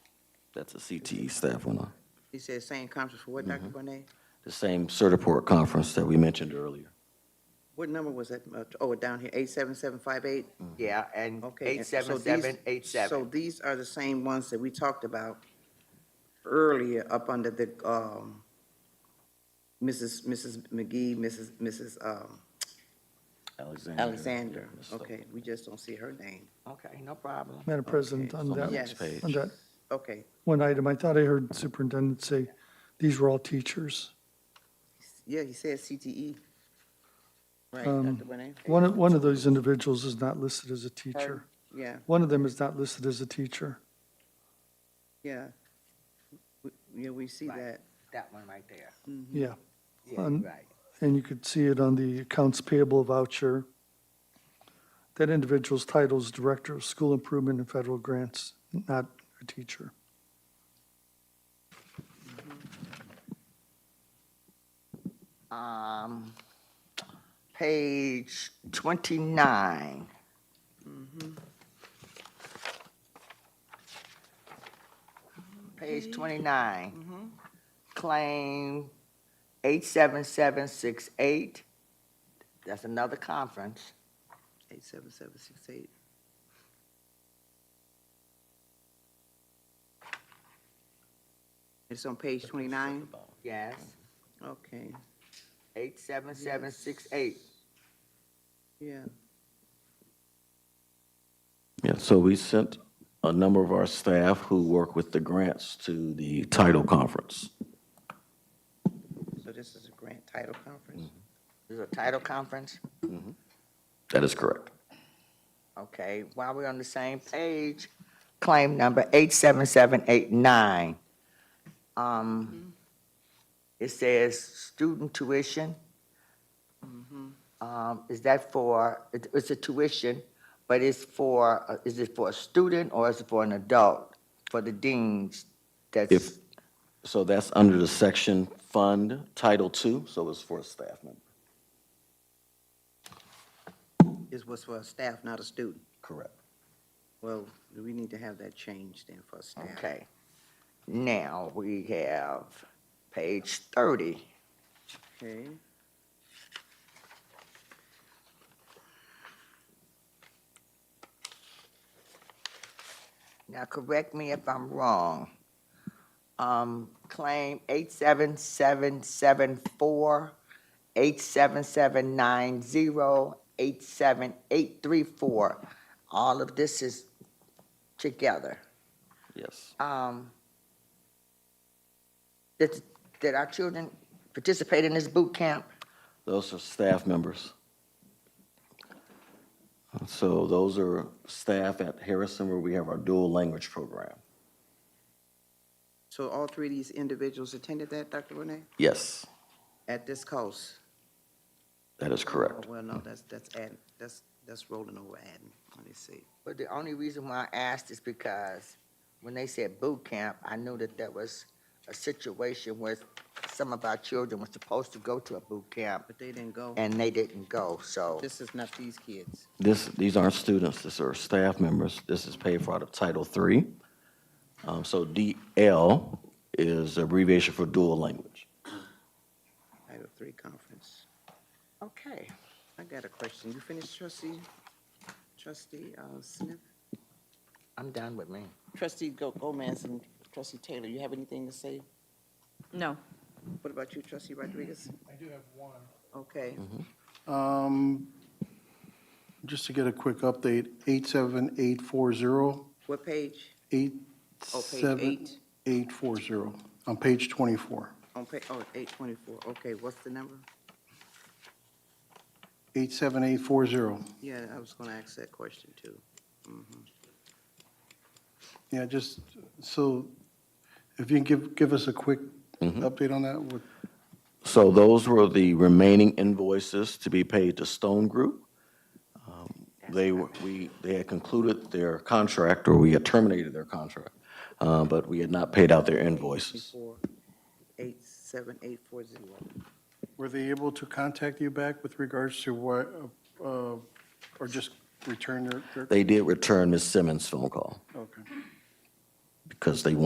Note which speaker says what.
Speaker 1: That's a CTE staff one, uh,
Speaker 2: You said same conference for what, Dr.
Speaker 3: Mm-hmm.
Speaker 2: Bonet?
Speaker 1: the same Certiport conference that we mentioned earlier.
Speaker 2: What number was that? Uh, Oh, down here, eight seven seven five eight?
Speaker 3: Yeah, and
Speaker 2: Okay.
Speaker 3: Mm-hmm. eight
Speaker 2: and so these-
Speaker 3: seven seven eight
Speaker 2: So
Speaker 3: seven.
Speaker 2: these are the same ones that we talked about earlier up under the, um, Mrs. Mrs. McGee, Mrs. Mrs. um,
Speaker 1: Alexander.
Speaker 2: Alexander.
Speaker 1: Yeah, Ms.
Speaker 2: Okay, we just don't see her name.
Speaker 3: Okay, no problem.
Speaker 4: Madam President, on
Speaker 1: so
Speaker 4: that,
Speaker 2: yes.
Speaker 4: on that
Speaker 2: Okay,
Speaker 4: one item, I thought I heard superintendent say, these were all teachers.
Speaker 2: yeah, he said CTE. E. Right,
Speaker 4: Um,
Speaker 2: Dr. Bonet?
Speaker 4: One, of- one of those individuals is not listed as a teacher.
Speaker 2: Yeah,
Speaker 4: One of them is not listed as a teacher.
Speaker 2: yeah. We- Yeah, we see
Speaker 3: Right.
Speaker 2: that.
Speaker 3: That one right there.
Speaker 4: Yeah,
Speaker 3: Yeah,
Speaker 4: Um,
Speaker 3: right.
Speaker 4: and you could see it on the accounts payable voucher. That individual's title is Director of School Improvement and Federal Grants, not a teacher.
Speaker 3: Um, page twenty-nine.
Speaker 2: Mm-hmm.
Speaker 3: Page
Speaker 2: Mm-hmm.
Speaker 3: twenty-nine. Claim eight seven seven six eight. That's another conference.
Speaker 2: Eight seven seven six eight. It's on page twenty-nine,
Speaker 3: Yes,
Speaker 2: okay,
Speaker 3: eight seven seven six eight.
Speaker 2: yeah,
Speaker 1: Yeah, so we sent a number of our staff who work with the grants to the title conference.
Speaker 2: so this is a grant title conference,
Speaker 3: This is a title conference.
Speaker 1: That is correct.
Speaker 3: Okay, while we're on the same page, claim number 87789. Um, It says student tuition. Um, Is that for, it- it's a tuition, but it's for, uh, is it for a student or is it for an adult? For the deans, that's,
Speaker 1: If, so that's under the section fund, Title II, so it's for a staff member.
Speaker 2: this was for a staff, not a student.
Speaker 1: Correct.
Speaker 2: Well, we need to have that changed then for a staff.
Speaker 3: okay. Now, we have page 30.
Speaker 2: Okay.
Speaker 3: Now, correct me if I'm wrong. Um, claim eight seven seven seven four, eight seven seven nine zero, eight seven eight three four. All of this is together.
Speaker 1: Yes.
Speaker 3: Um, did, did our children participate in this boot camp?
Speaker 1: Those are staff members. So those are staff at Harrison where we have our dual language program.
Speaker 2: So all three of these individuals attended that, Dr. Renee,
Speaker 1: Yes,
Speaker 2: at this cost?
Speaker 1: that is correct.
Speaker 2: Oh, Well, no, that's, that's adding, that's, that's rolling over adding, let me see.
Speaker 3: But the only reason why I asked is because when they said boot camp, I knew that there was a situation where some of our children were supposed to go to a boot camp
Speaker 2: But they didn't go,
Speaker 3: and they didn't go, so,
Speaker 2: this is not these kids.
Speaker 1: This, these aren't students, these are staff members. This is paid for out of Title III. Um, So DL is abbreviation for dual language.
Speaker 2: Title three conference.
Speaker 3: okay.
Speaker 2: I got a question. You finished trustee, trustee uh, Smith?
Speaker 3: I'm done with me.
Speaker 2: Trustee Go- Gomez and trustee Taylor, you have anything to say?
Speaker 5: No.
Speaker 2: What about you, trustee Rodriguez?
Speaker 6: I do have one.
Speaker 2: Okay,
Speaker 6: Um, Just to get a quick update, 87840,
Speaker 2: what page? Oh, page eight,
Speaker 6: 87840, on page 24.
Speaker 2: on pa, oh, eight twenty-four. Okay, what's the number?
Speaker 6: 87840.
Speaker 2: Yeah, I was gonna ask that question too. Mhm.
Speaker 6: Yeah, just, so if you can give, give us a quick
Speaker 2: Mm-hmm.
Speaker 6: update on that, what-
Speaker 1: So those were the remaining invoices to be paid to Stone Group. Um, They, were- we, they had concluded their contract, or we had terminated their contract, uh, but we had not paid out their invoices.
Speaker 2: Before, eight, seven, eight, four, zero.
Speaker 6: were they able to contact you back with regards to what, uh, or just return their? their-
Speaker 1: They did return Ms. Simmons' phone call
Speaker 6: Okay.
Speaker 1: because they